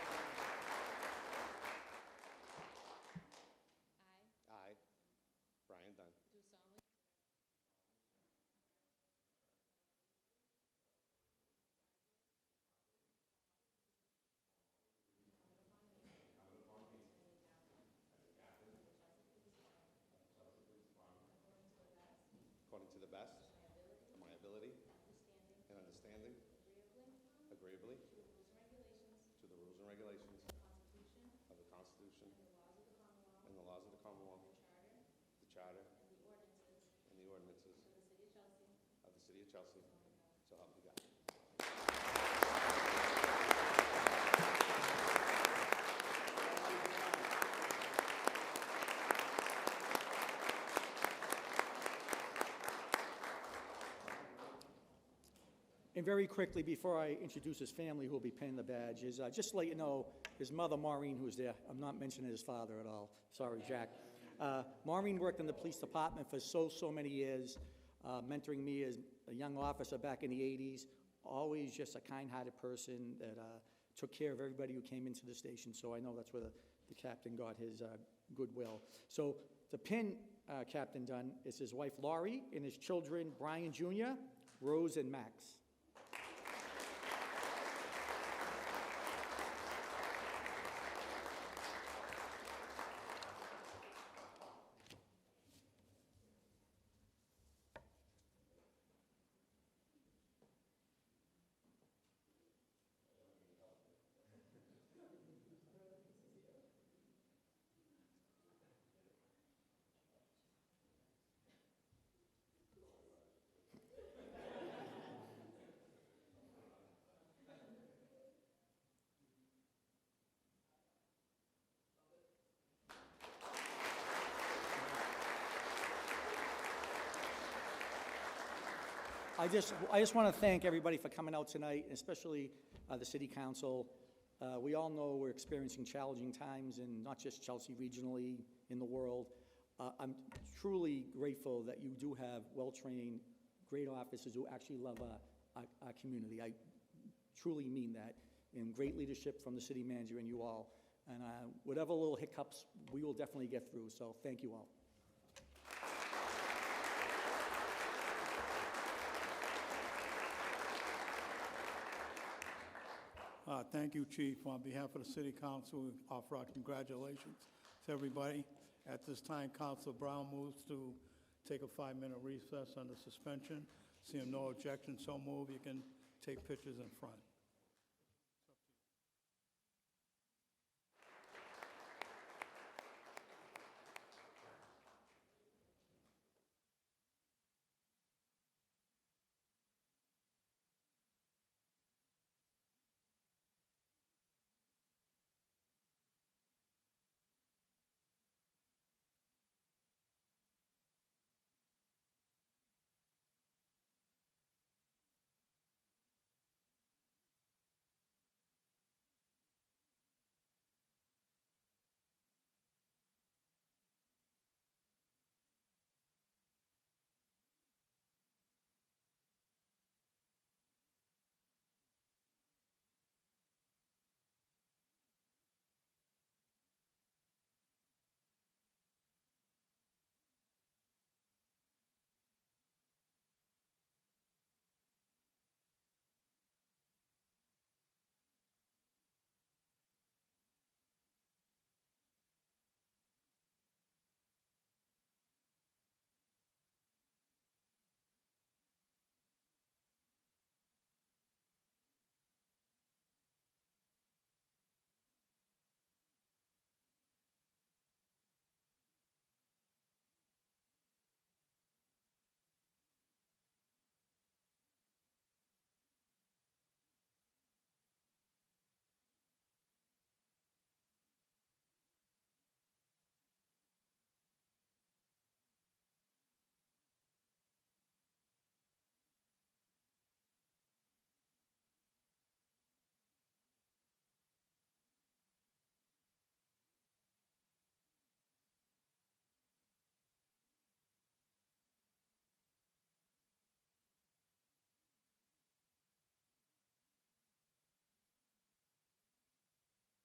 to the best of my ability and understanding, agreeably to the rules and regulations of the Constitution and the laws of the Commonwealth, the Charter and the ordinances of the City of Chelsea, so help me God. And very quickly, before I introduce his family who will be pinning the badge, is uh, just to let you know, his mother, Maureen, who's there, I'm not mentioning his father at all, sorry, Jack. Uh, Maureen worked in the police department for so, so many years, uh, mentoring me as a young officer back in the 80s, always just a kind-hearted person that uh, took care of everybody who came into the station, so I know that's where the the captain got his uh, goodwill. So the pin uh, Captain Dunn is his wife Laurie and his children Brian Jr., Rose, and Max. I just, I just want to thank everybody for coming out tonight, and especially uh, the city council. Uh, We all know we're experiencing challenging times, and not just Chelsea regionally, in the world. Uh, I'm truly grateful that you do have well-trained, great officers who actually love our, our- our community. I truly mean that, and great leadership from the city manager and you all. And uh, whatever little hiccups, we will definitely get through, so thank you all. Uh, Thank you, Chief. On behalf of the City Council, we offer our congratulations to everybody. At this time, Council Brown moves to take a five-minute recess under suspension. Seeing no objection, so move. You can take pictures in front.